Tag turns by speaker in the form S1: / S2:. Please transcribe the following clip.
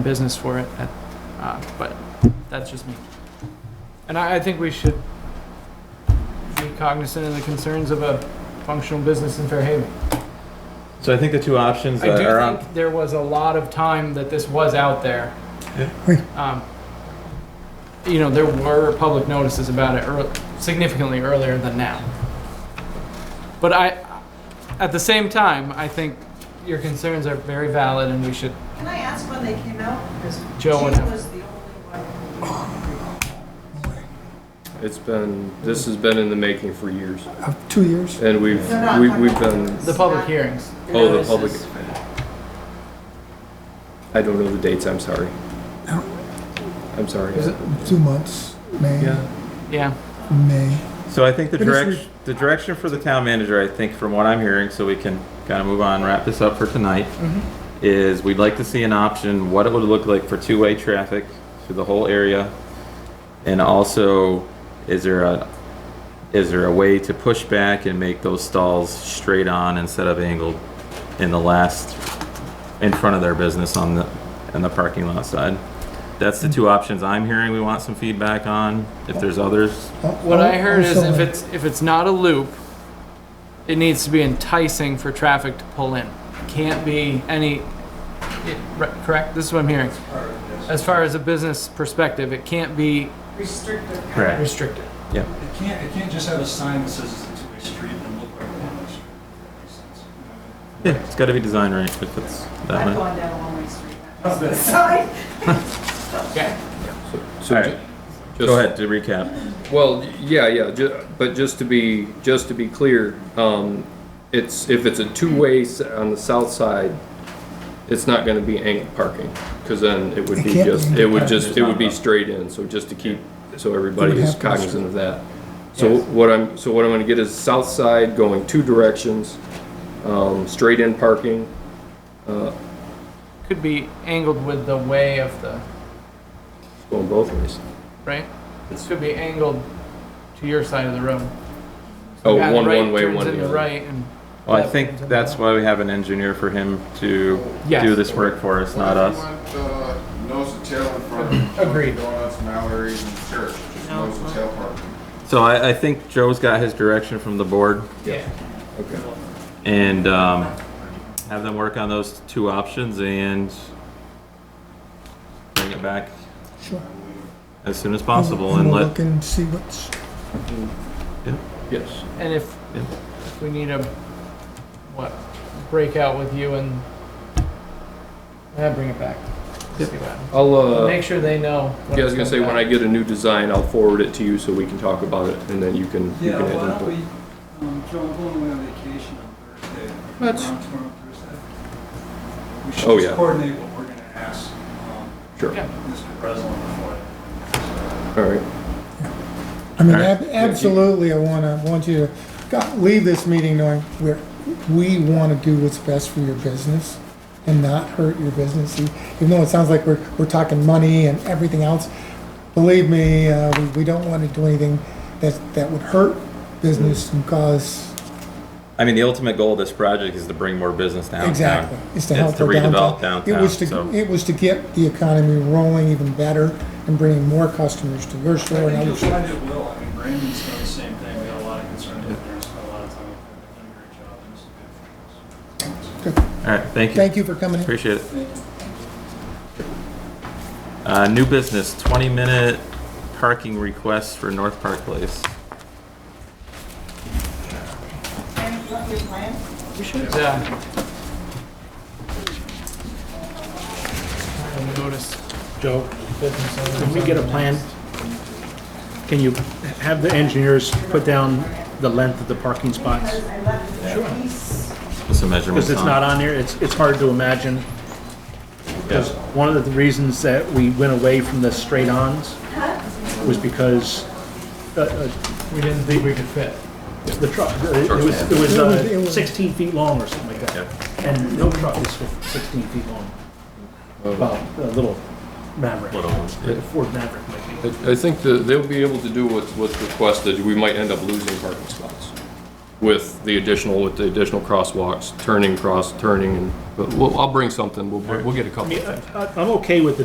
S1: business for it, uh, uh, but that's just me. And I, I think we should be cognizant of the concerns of a functional business in Fairhaven.
S2: So I think the two options
S1: I
S2: that
S1: do
S2: are on,
S1: think there was a lot of time that this was out there.
S2: Yeah.
S1: Um, You know, there were public notices about it earl- significantly earlier than now. But I, at the same time, I think your concerns are very valid and we should,
S3: Can I ask when they came out? Because
S1: Joe and-
S3: She was the only one.
S4: It's been, this has been in the making for years,
S5: Uh, Two years?
S4: and we've,
S3: No, no, I'm
S4: we-
S3: talking
S4: we've
S3: about
S4: been,
S1: the public hearings.
S4: oh, the
S3: notices.
S4: public. I don't know the dates, I'm sorry.
S5: No.
S4: I'm sorry.
S1: Is it-
S5: Two months, May,
S4: Yeah,
S1: Yeah,
S5: May.
S2: so I think the
S5: But it's
S2: direction, the direction for the town manager, I think from what I'm hearing, so we can kind of move on, wrap this up for tonight, is we'd like to see an option, what it would look like for two-way traffic through the whole area. And also, is there a, is there a way to push back and make those stalls straight on instead of angled in the last, in front of their business on the, on the parking lot side? That's the two options I'm hearing we want some feedback on. If there's others,
S1: what
S5: Oh,
S1: I heard is if it's, if it's not a loop, it needs to be enticing for traffic to pull in. Can't be any, it- re- correct? This is what I'm hearing. As far as a business perspective, it can't be
S3: Restrictive.
S2: Correct.
S1: restricted.
S6: It can't, it can't just have a sign that says it's a two-way street and look like a one-way street. That makes sense.
S2: Yeah, it's got to be designed right if it's that
S3: I've
S2: way.
S3: gone down a one-way street.
S6: Oh, but-
S3: Sorry.
S1: Okay.
S4: so
S2: All
S4: ju-
S2: right.
S4: just-
S2: Go ahead to recap.
S4: Well, yeah, yeah, ju- but just to be, just to be clear, um, it's, if it's a two-way s- on the south side, it's not gonna be angled parking, cause then it would
S5: It
S4: be
S5: can't be
S4: just, it
S5: angled
S4: would
S2: parking.
S4: just, it would be straight in, so just to keep, so everybody
S5: It would
S4: is
S5: have to be
S4: cognizant of that. So
S2: Yes.
S4: what I'm, so what I'm gonna get is south side going two directions, um, straight in parking,
S1: Could be angled with the way of the,
S4: going both ways.
S1: right? This could be angled to your side of the road.
S4: Oh,
S1: Yeah, the
S4: one,
S1: right
S4: one way,
S1: turns
S4: one
S1: in
S4: the
S1: the
S4: other.
S1: right and,
S2: Well, I think that's why we have an engineer for him to
S1: Yes.
S2: do this work for us, not us.
S7: Why do you want, uh, Nose and tail in front of.
S1: Agreed.
S7: Donuts, Mallory's and Church, just nose and tail parking.
S2: So I, I think Joe's got his direction from the board
S1: yeah.
S4: Okay.
S2: and um, have them work on those two options and bring it back
S5: Sure.
S2: as soon as possible
S5: And
S2: and
S5: we'll
S2: let,
S5: look and see what's,
S4: Yes.
S1: And if,
S2: Yeah.
S1: if we need a, what, breakout with you and, yeah, bring it back. See what happens.
S4: I'll, uh.
S1: Make sure they know.
S4: Yeah, I was gonna say, when I get a new design, I'll forward it to you so we can talk about it and then you can, you
S6: Yeah,
S4: can
S6: why
S4: add
S6: don't we,
S4: input.
S6: um, Joe, I'm going away on vacation on Thursday.
S4: That's-
S6: Around tomorrow, Thursday. We
S4: Oh,
S6: should
S4: yeah.
S6: just coordinate what we're gonna ask, um,
S4: Sure,
S1: Yeah.
S6: Mr. Breslin before.
S4: all right.
S5: I mean,
S2: All right.
S5: ab- absolutely, I want to, want you to go- leave this meeting knowing we're, we want to do what's best for your business and not hurt your business. E- Even though it sounds like we're, we're talking money and everything else, believe me, uh, we- we don't want to do anything that, that would hurt business and cause,
S2: I mean, the ultimate goal of this project is to bring more business downtown.
S5: exactly, is to help
S2: It's to
S5: our
S2: redevelop
S5: downtown. It
S2: downtown,
S5: was to-
S2: so.
S5: It was to get the economy rolling even better and bringing more customers to your store and
S6: I think
S5: other
S6: you'll
S5: stores.
S6: find it will, I mean, Brandon's done the same thing, we had a lot of concern with there, spent a lot of time with them, they've done a great job, and it's a good for us.
S2: All right, thank you.
S5: Thank you for coming in.
S2: Appreciate it.
S6: Thank you.
S2: Uh, new business, twenty minute parking request for North Park Place.
S3: And you want your plan?
S1: Yeah. I noticed.
S8: Joe, can we get a plan? Can you have the engineers put down the length of the parking spots?
S3: Because I left the piece.
S2: With some measurements
S8: Because
S2: on.
S8: it's not on here, it's, it's hard to imagine. Because one of the reasons that we went away from the straight-ons was because uh, uh,
S1: We didn't think we could fit.
S8: the truck, uh, it was, it was
S5: It
S8: uh,
S5: was-
S8: 16 feet long or something like
S2: Yep.
S8: that. And no truck is 16 feet long. Well, a little Maverick,
S2: Little ones, yeah.
S8: a Ford Maverick might be.
S4: I, I think that they'll be able to do what's, what's requested. We might end up losing parking spots. with the additional, with the additional crosswalks, turning, cross, turning, and, but we'll, I'll bring something, we'll, we'll get a couple of things.
S8: I- I'm okay with the